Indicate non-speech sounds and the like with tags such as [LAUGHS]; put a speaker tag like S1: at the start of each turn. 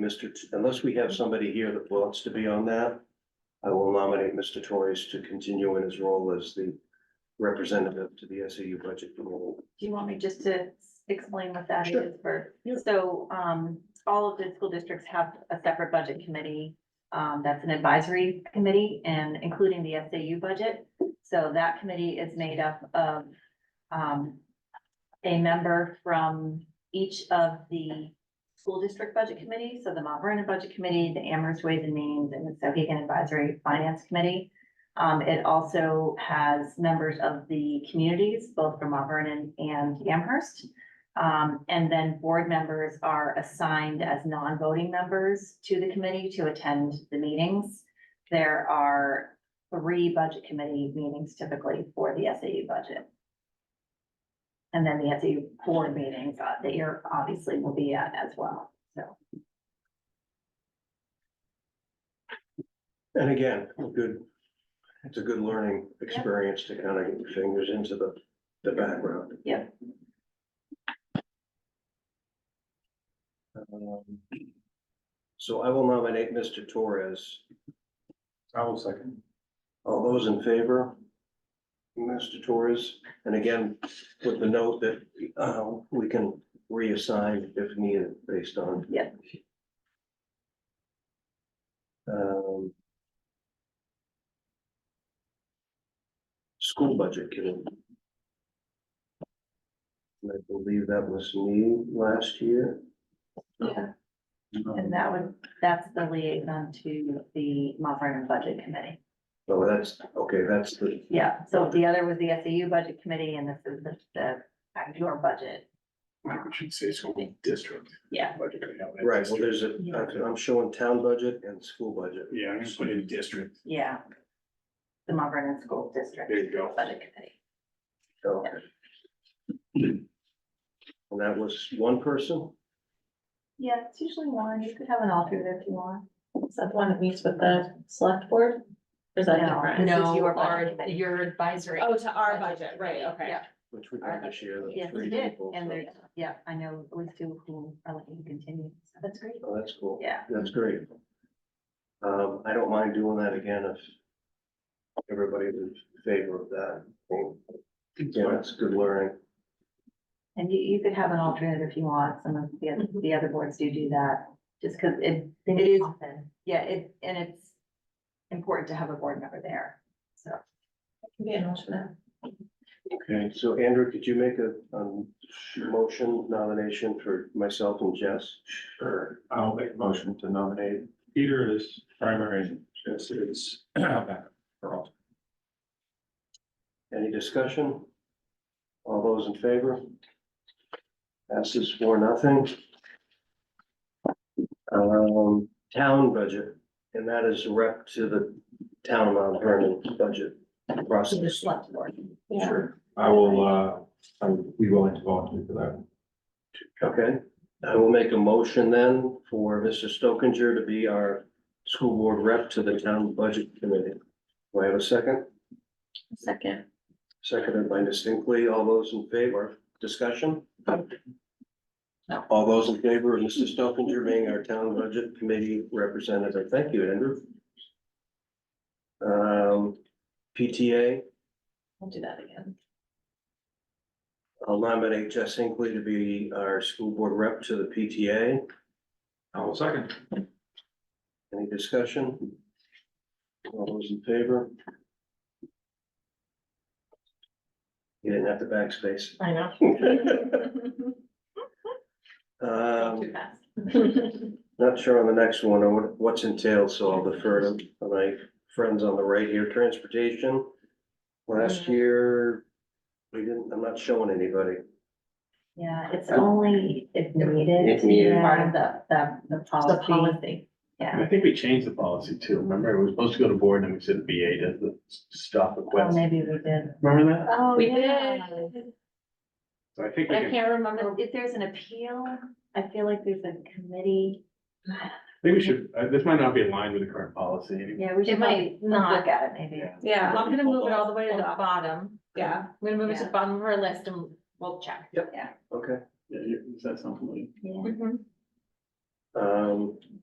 S1: Mr., T- unless we have somebody here that wants to be on that, I will nominate Mr. Torres to continue in his role as the representative to the SAU budget committee.
S2: Do you want me just to explain what that
S1: Sure.
S2: is for?
S1: Yeah.
S2: So, um, all of the school districts have a separate budget committee. Um, that's an advisory committee and including the SAU budget. So that committee is made up of, um, a member from each of the school district budget committees, so the Mount Vernon Budget Committee, the Amherst Ways and Means, and the Sohegan Advisory Finance Committee. Um, it also has members of the communities, both from Mount Vernon and Amherst. Um, and then board members are assigned as non-voting members to the committee to attend the meetings. There are three budget committee meetings typically for the SAU budget. And then the SAU board meetings uh, that you're obviously will be at as well, so.
S1: And again, a good, it's a good learning experience to kind of get your fingers into the, the background.
S2: Yeah.
S1: Um, So I will nominate Mr. Torres.
S3: I will second.
S1: All those in favor? Mr. Torres, and again, with the note that, uh, we can reassign if needed based on.
S2: Yeah.
S1: Um. School budget committee. I believe that was me last year.
S2: Yeah. And that would, that's the liaison to the Mount Vernon Budget Committee.
S1: Oh, that's, okay, that's the,
S2: Yeah, so the other was the SAU Budget Committee and this is the, the, your budget.
S3: We should say school district.
S2: Yeah.
S3: Budget, you know, that
S1: right, well,
S3: district.
S1: there's a, uh, I'm showing town budget and school budget.
S3: Yeah, I'm gonna put in district.
S2: Yeah. The Mount Vernon School District
S3: There you go.
S2: Budget Committee.
S1: Okay. And that was one person?
S2: Yeah, it's usually one. You could have an alternate if you want.
S4: Is that the one that meets with the select board? Or Is that
S2: No,
S4: different?
S2: This is
S5: No,
S2: your budget
S5: our,
S2: committee.
S5: your advisory.
S4: Oh, to our budget, right, okay.
S2: Yeah,
S1: Which we had this year. that
S2: Yes,
S1: three
S2: we did.
S1: people, so-
S2: And there's, yeah, I know at least two who are looking to continue. So That's great.
S1: Oh, that's cool.
S2: Yeah.
S1: That's great. Um, I don't mind doing that again if everybody is in favor of that. Yeah, it's good learning.
S2: And you, you could have an alternate if you want, some of the, oth- the other boards do do that, just because it, it is, yeah, it, and it's important to have a board member there, so.
S4: Be an alternate.
S1: Okay, so Andrew, could you make a, um, motion nomination for myself and Jess?
S3: Sure. I'll make a motion to nominate Peter as primary, Jess is backup for all.
S1: Any discussion? All those in favor? Passes for nothing. Um, town budget, and that is rep to the town of Mount Vernon budget process.
S2: select board.
S4: Yeah.
S3: Sure. I will, uh, I would be willing to volunteer for that.
S1: Okay, I will make a motion then for Mr. Stokinger to be our school board rep to the town budget committee. Do I have a second?
S4: Second.
S1: Seconded by distinctly. All those in favor, discussion?
S4: No.
S1: All those in favor of Mr. Stokinger being our town budget committee representative. Thank you, Andrew. Um, PTA,
S4: I'll do that again.
S1: I'll nominate Jess Hinckley to be our school board rep to the PTA.
S3: I will second.
S1: Any discussion? All those in favor? You didn't have to backspace.
S4: I know.
S1: Um,
S4: Too fast.
S1: Not sure on the next one, or what- what's entailed, so I'll defer to my friends on the right here, transportation. Last year, we didn't, I'm not showing anybody.
S2: Yeah, it's only if needed.
S3: If needed.
S2: yeah, Part of the, the, the
S4: The
S2: policy,
S4: policy.
S2: yeah.
S6: I think we changed the policy too. Remember, it was supposed to go to board and then we said BA does the stuff
S2: Well,
S4: Oh,
S6: request.
S2: maybe we did.
S6: Remember that?
S2: Oh,
S4: [LAUGHS] We did.
S6: So I think we
S4: I
S6: can, I
S4: can't remember.
S2: If there's an appeal, I feel like there's a committee,
S6: think we should, uh, this might not be aligned with the current policy. anymore.
S2: yeah, we should.
S4: It might
S2: probably
S4: not.
S2: Look at it maybe.
S6: Yeah.
S4: Yeah, I'm gonna move it all the way to the bottom. Yeah, I'm gonna move it to the bottom of our list and we'll check.
S1: Okay.
S6: Yeah, you- Does that sound familiar?
S2: Yeah.
S4: Mhm.
S1: Um,